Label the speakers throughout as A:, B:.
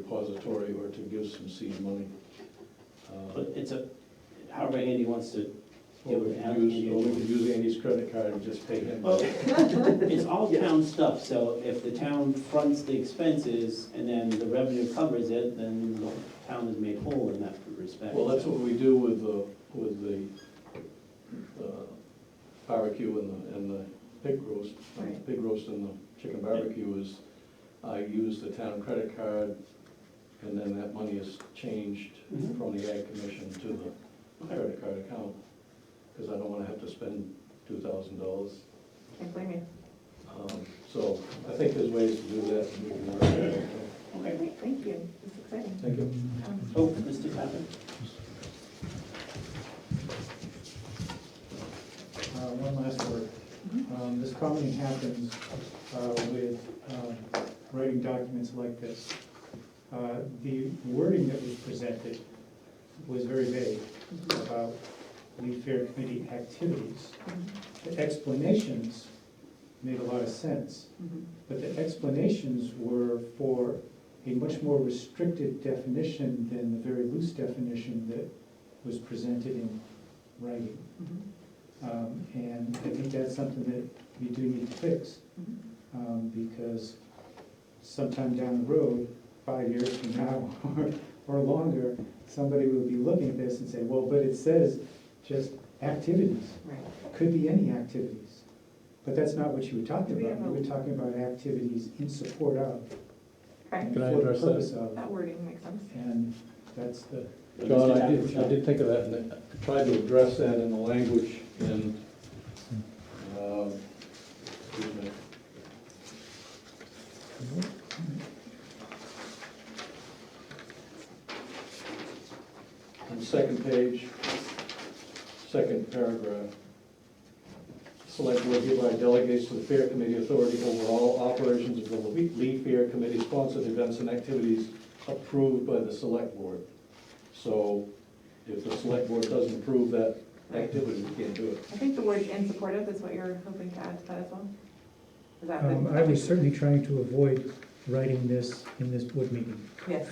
A: repository or to give some seed money. uh,
B: But it's a, however Andy wants to
A: Or we could use, or we could use Andy's credit card and just pay him.
B: Well, it's all town stuff, so if the town fronts the expenses and then the revenue covers it, then the town is made whole in that respect.
A: Well, that's what we do with the, with the uh, barbecue and the, and the pig roast. uh,
C: Right.
A: Pig roast and the chicken barbecue is, I use the town credit card, and then that money is changed
B: Mhm.
A: from the ag commission to the credit card account, because I don't wanna have to spend two thousand dollars.
C: Can't blame you.
A: Um, So I think there's ways to do that. and we can work it out.
B: Okay.
C: Great, thank you. It's exciting.
A: Thank you.
C: Um,
B: Oh, Mr. Tappan?
D: Uh, One last word.
C: Mhm.
D: Um, This commonly happens uh, with um, writing documents like this. Uh, The wording that was presented was very vague
C: mm-hmm,
D: about Lead Fair Committee activities.
C: mhm,
D: The explanations made a lot of sense,
C: mhm.
D: but the explanations were for a much more restricted definition than the very loose definition that was presented in writing.
C: Mhm,
D: Um, And I think that's something that we do need to fix,
C: mhm.
D: um, because sometime down the road, five years from now or, or longer, somebody will be looking at this and say, well, but it says just activities,
C: Right.
D: could be any activities. But that's not what you were talking
C: Do we
D: about, you
C: have a-
D: were talking about activities in support of,
C: Okay,
D: and
A: Can I
D: for the
A: address that?
D: purpose of,
C: that wording makes sense.
D: and that's the,
A: John,
B: Mr.
A: I did,
B: Tappan,
A: I did think of that, and I tried to address that in the language in, um, excuse me. On the second page, second paragraph. Select board hereby delegates to the fair committee authority over all operations of the Lee Fair Committee sponsored events and activities approved by the select board. So if the select board doesn't approve that activity, we can't do it.
C: I think the word in supportive is what you're hoping to add to that as well. Is that?
E: Um, I was certainly trying to avoid writing this in this board meeting.
C: Yes,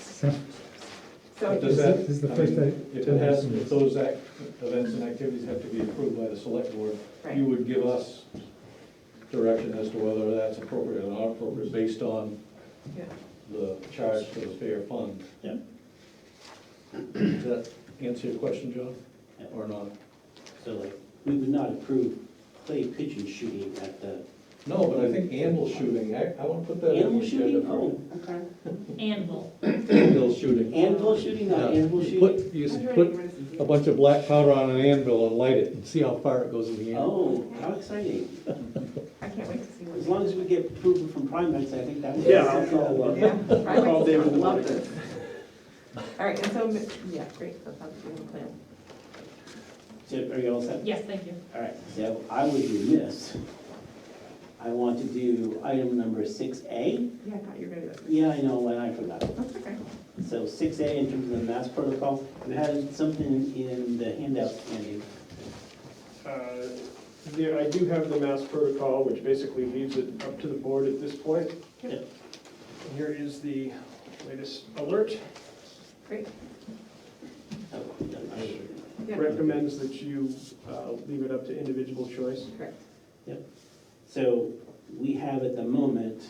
E: So,
C: so,
E: This
A: Does that-
E: is- this is the
A: I
E: first
A: mean,
E: I-
A: If it has, if those act, events and activities have to be approved by the select board, you
C: right,
A: would give us direction as to whether that's appropriate or not appropriate, based on
C: Yeah.
A: the charge to the fair fund.
B: Yeah.
A: Does that answer your question, John,
B: Yeah.
A: or not?
B: So like, we would not approve clay pigeon shooting at the
A: No, but I think animal shooting, I, I wanna put that in
B: animal
A: the agenda.
B: shooting?
A: for-
B: Oh, okay.
F: Anvil.
A: Animal shooting.
B: Anvil shooting, not
A: Yeah.
B: animal
A: You
B: shooting?
A: Put, you
C: I was
A: s-
C: ready
A: put
C: for this.
A: a bunch of black powder on an anvil and light it and see how far it goes in the end.
B: Oh, how exciting.
C: I can't wait to see
B: As
C: what.
B: long as we get approval from Primex, I think that would.
A: Yeah, I'll-
C: Yeah, I
B: All
C: like
B: day
C: this, I
B: with the
C: love
B: word.
C: this. All right, and so, mi- yeah, great, that sounds like a good plan.
B: So are you all set?
F: Yes, thank you.
B: All right, so I would do this. I want to do item number six A.
C: Yeah, I thought you were gonna do that.
B: Yeah, I know, and I forgot.
C: That's okay.
B: So six A in terms of the mass protocol, you had something in the handout, Andy.
G: Uh, There, I do have the mass protocol, which basically leaves it up to the board at this point.
B: Yep.
G: And Here is the latest alert.
C: Great.
B: Oh, done.
C: Yeah.
G: Recommends that you uh, leave it up to individual choice.
C: Correct.
B: So we have at the moment,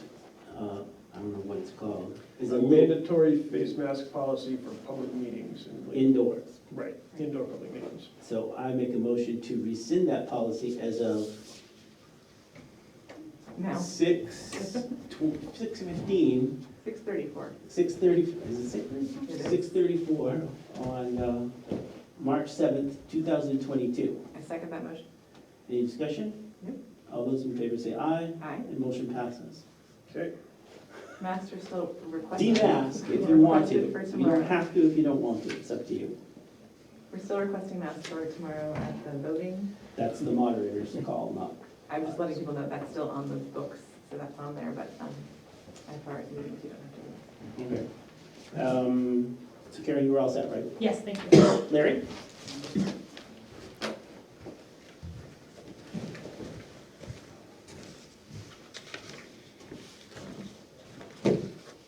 B: uh, I don't know what it's called, is a
G: A
B: lid
G: mandatory face mask policy for public meetings. and-
B: indoors.
G: Right, indoor public meetings.
B: So I make a motion to rescind that policy as of
C: Now,
B: six, tw- six fifteen
C: six thirty-four.
B: Six thirty, is it
C: It
B: six
C: is.
B: thirty? Six thirty-four on uh, March seventh, two thousand twenty-two.
C: I second that motion.
B: Any discussion?
C: Yep.
B: All those in favor say aye,
C: Aye.
B: and motion passes.
G: Okay,
C: Master still requesting.
B: Demask if you want to.
C: Requested for
B: You don't
C: tomorrow.
B: have to if you don't want to, it's up to you.
C: We're still requesting masks for tomorrow at the voting.
B: That's the moderator's call, not.
C: I'm just letting people know that's still on the books, so that's on there, but um, as far as you, you don't have to.
B: Okay. Um, So Karen, you were all set, right?
F: Yes, thank you.
B: Larry?